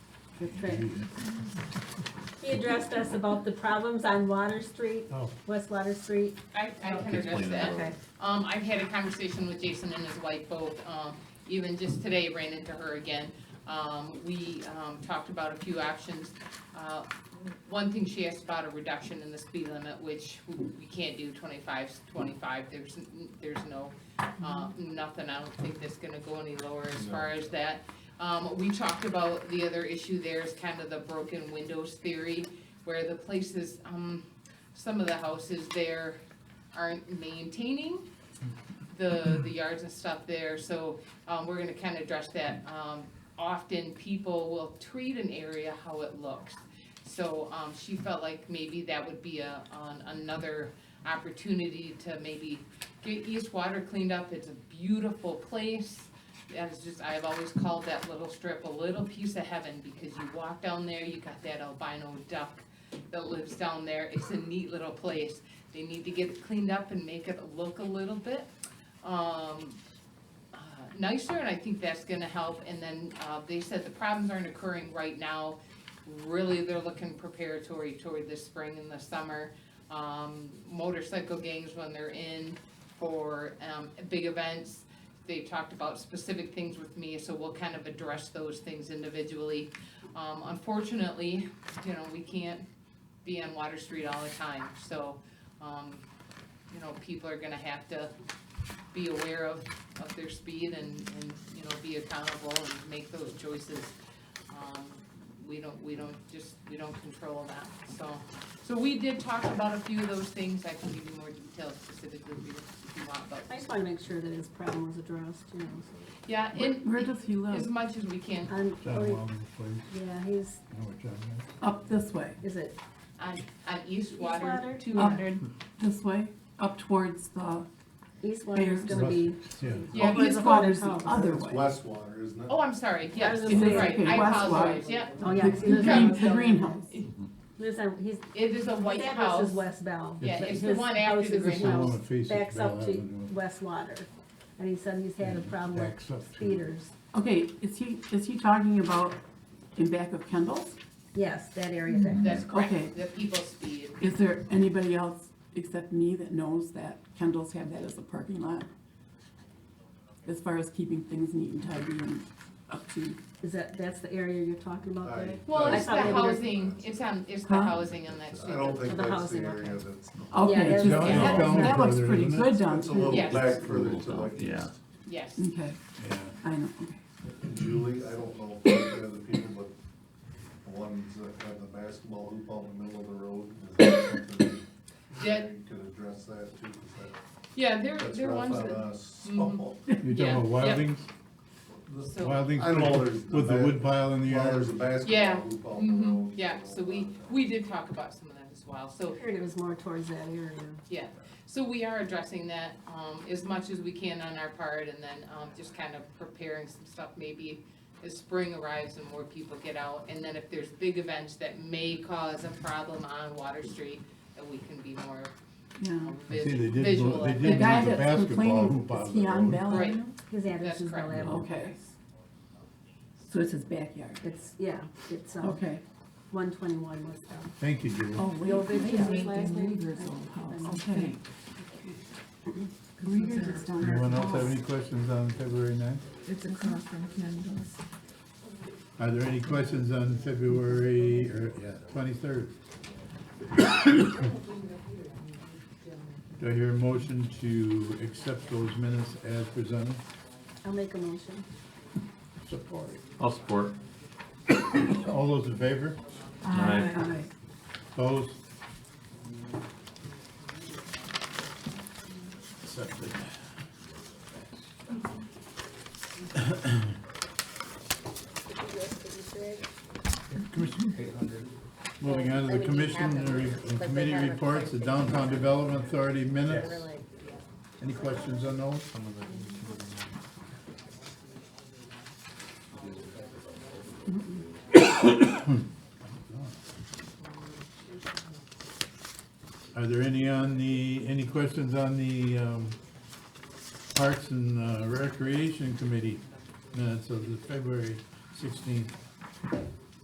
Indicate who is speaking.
Speaker 1: with Trenton. He addressed us about the problems on Water Street,
Speaker 2: Oh,
Speaker 1: West Water Street.
Speaker 3: I, I
Speaker 4: Explain
Speaker 3: can address
Speaker 4: that.
Speaker 3: that. Um, I've had a conversation with Jason and his wife both, um, even just today ran into her again. Um, we, um, talked about a few options. Uh, one thing she asked about a reduction in the speed limit, which we can't do 25. 's 25. there's, n- there's no, uh, nothing, I don't think that's gonna go any lower as far as that. Um, we talked about the other issue there is kind of the broken windows theory, where the places, um, some of the houses there aren't maintaining the, the yards and stuff there, so, um, we're gonna kinda address that. Um, often people will treat an area how it looks. So, um, she felt like maybe that would be a, on another opportunity to maybe get East Water cleaned up, it's a beautiful place. That is just, I've always called that little strip a little piece of heaven, because you walk down there, you got that albino duck that lives down there, it's a neat little place. They need to get it cleaned up and make it look a little bit, um, uh, nicer, and I think that's gonna help. And then, uh, they said the problems aren't occurring right now. Really, they're looking preparatory toward the spring and the summer. Um, motorcycle gangs when they're in for, um, big events. They talked about specific things with me, so we'll kind of address those things individually. Um, unfortunately, you know, we can't be on Water Street all the time, so, um, you know, people are gonna have to be aware of, of their speed and, and, you know, be accountable and make those choices. Um, We don't, we don't just, we don't control that, so, so we did talk about a few of those things, I can give you more details specifically if you, if you want, but,
Speaker 1: I just wanna make sure that his problem was addressed, you know, so-
Speaker 3: yeah,
Speaker 5: Where-
Speaker 3: and
Speaker 5: Where does he
Speaker 3: as
Speaker 5: live?
Speaker 3: much as we can,
Speaker 1: on-
Speaker 2: John
Speaker 1: or-
Speaker 2: Walden, please.
Speaker 1: Um, oh, Yeah, he's,
Speaker 2: You know what John is?
Speaker 5: Up this way,
Speaker 1: is it,
Speaker 3: on, on East Water,
Speaker 1: Eastwater?
Speaker 3: two hundred.
Speaker 5: Oh. this way, up towards the,
Speaker 1: East Water's
Speaker 5: Bears.
Speaker 1: gonna be,
Speaker 2: Yeah.
Speaker 3: Yeah,
Speaker 1: Well,
Speaker 5: his
Speaker 3: he's,
Speaker 1: it's-
Speaker 5: father's the
Speaker 1: Water's
Speaker 5: other
Speaker 6: It's
Speaker 5: way.
Speaker 6: West Water, isn't it?
Speaker 3: oh, I'm sorry, yes,
Speaker 1: I was
Speaker 3: you're
Speaker 1: gonna say,
Speaker 3: right,
Speaker 5: okay,
Speaker 3: I
Speaker 5: West
Speaker 3: apologize,
Speaker 5: Water.
Speaker 3: yeah,
Speaker 1: oh yeah.
Speaker 5: The
Speaker 1: he lives
Speaker 5: the
Speaker 1: on
Speaker 5: green,
Speaker 1: West
Speaker 5: the
Speaker 1: Bell.
Speaker 5: greenhouse.
Speaker 1: Lives on, he's,
Speaker 3: it is a white
Speaker 1: his
Speaker 3: house.
Speaker 1: address is West Bell.
Speaker 3: Yeah,
Speaker 1: but
Speaker 3: it's the
Speaker 1: his
Speaker 3: one after
Speaker 1: house
Speaker 3: the
Speaker 1: is-
Speaker 3: green
Speaker 2: It's the one
Speaker 3: house.
Speaker 2: that faces
Speaker 1: Backs up
Speaker 2: Bell
Speaker 1: to
Speaker 2: Avenue.
Speaker 1: West Water, and he said he's had a problem
Speaker 2: Backs up
Speaker 1: with
Speaker 2: to-
Speaker 1: speeders.
Speaker 5: Okay, is he, is he talking about in back of Kendall's?
Speaker 1: Yes, that area there.
Speaker 5: Mm-hmm.
Speaker 3: That's
Speaker 5: Okay.
Speaker 3: correct, the people speed.
Speaker 5: Is there anybody else except me that knows that Kendall's have that as a parking lot? As far as keeping things neat and tidy and up to,
Speaker 1: Is that, that's the area you're talking about there?
Speaker 6: I-
Speaker 3: Well,
Speaker 6: I
Speaker 3: it's the
Speaker 1: thought they were-
Speaker 3: housing, it's on, it's the
Speaker 5: Huh?
Speaker 3: housing on that
Speaker 6: I
Speaker 3: street.
Speaker 6: don't
Speaker 1: For
Speaker 6: think
Speaker 1: the
Speaker 6: that's the
Speaker 1: housing, okay.
Speaker 6: area that's,
Speaker 1: Yeah,
Speaker 5: okay,
Speaker 1: that's-
Speaker 5: just,
Speaker 2: Down-
Speaker 3: Yeah.
Speaker 5: that,
Speaker 2: down
Speaker 5: that looks
Speaker 2: further,
Speaker 5: pretty
Speaker 2: isn't it?
Speaker 5: good down
Speaker 6: it's a little
Speaker 5: there.
Speaker 3: Yes.
Speaker 6: back further to like
Speaker 4: Yeah.
Speaker 6: east.
Speaker 3: Yes,
Speaker 5: Okay,
Speaker 2: Yeah.
Speaker 5: I know, okay.
Speaker 6: And Julie, I don't know if they're the people, but the ones that have the basketball hoop out in the middle of the road, is that something
Speaker 3: Yeah.
Speaker 6: we could address that too, 'cause that-
Speaker 3: yeah, there,
Speaker 6: that's
Speaker 3: there are
Speaker 6: rough
Speaker 3: ones
Speaker 6: on
Speaker 3: that,
Speaker 6: us.
Speaker 3: Mhm. Yeah,
Speaker 2: You're talking about
Speaker 3: yep.
Speaker 2: Wildings?
Speaker 6: This-
Speaker 3: So-
Speaker 2: Wildings
Speaker 6: I know there's
Speaker 2: with the
Speaker 6: the-
Speaker 2: wood pile in the
Speaker 6: Well,
Speaker 2: yard?
Speaker 6: there's a
Speaker 3: Yeah.
Speaker 6: basketball hoop out in the
Speaker 3: hmm
Speaker 6: road. uh,
Speaker 3: yeah, so we, we did talk about some of that as well, so,
Speaker 1: I heard it was more towards that area.
Speaker 3: yeah. So we are addressing that, um, as much as we can on our part, and then, um, just kind of preparing some stuff, maybe as spring arrives and more people get out, and then if there's big events that may cause a problem on Water Street, that we can be more
Speaker 5: Yeah.
Speaker 3: um,
Speaker 2: I see they
Speaker 3: vis-
Speaker 2: did
Speaker 3: visual.
Speaker 2: go- they
Speaker 3: of
Speaker 2: did
Speaker 5: The
Speaker 3: it.
Speaker 2: go
Speaker 5: guy
Speaker 2: There's a
Speaker 5: that's
Speaker 2: basketball
Speaker 5: complaining,
Speaker 2: hoop out
Speaker 5: is
Speaker 2: of
Speaker 5: he
Speaker 2: the
Speaker 5: on
Speaker 2: road.
Speaker 5: Bell
Speaker 3: Right.
Speaker 5: Avenue?
Speaker 1: His address
Speaker 3: That's
Speaker 1: is Bell
Speaker 3: correct.
Speaker 1: Avenue.
Speaker 5: Okay, so it's his backyard.
Speaker 1: It's, yeah, it's, um,
Speaker 5: Okay.
Speaker 1: one twenty-one West Bell.
Speaker 2: Thank you, Julie.
Speaker 5: Oh, wait,
Speaker 1: Your big
Speaker 5: wait,
Speaker 1: business
Speaker 5: wait,
Speaker 1: lies
Speaker 5: the
Speaker 1: there?
Speaker 5: Uyghurs old house, okay. Uyghurs is down there.
Speaker 2: Anyone else have any questions on February ninth?
Speaker 7: It's across from Kendall's.
Speaker 2: Are there any questions on February, or, yeah, twenty-third? Do I hear a motion to accept those minutes as presented?
Speaker 1: I'll make a motion.
Speaker 2: Support.
Speaker 4: I'll support.
Speaker 2: All those in favor?
Speaker 4: Aye.
Speaker 5: Aye.
Speaker 2: Opposed? Accepted. Commission- Moving on to the commission and re- and committee reports, the Downtown Development Authority minutes. Any questions on those? Are there any on the, any questions on the um, Parks and uh, Recreation Committee minutes of the February sixteenth?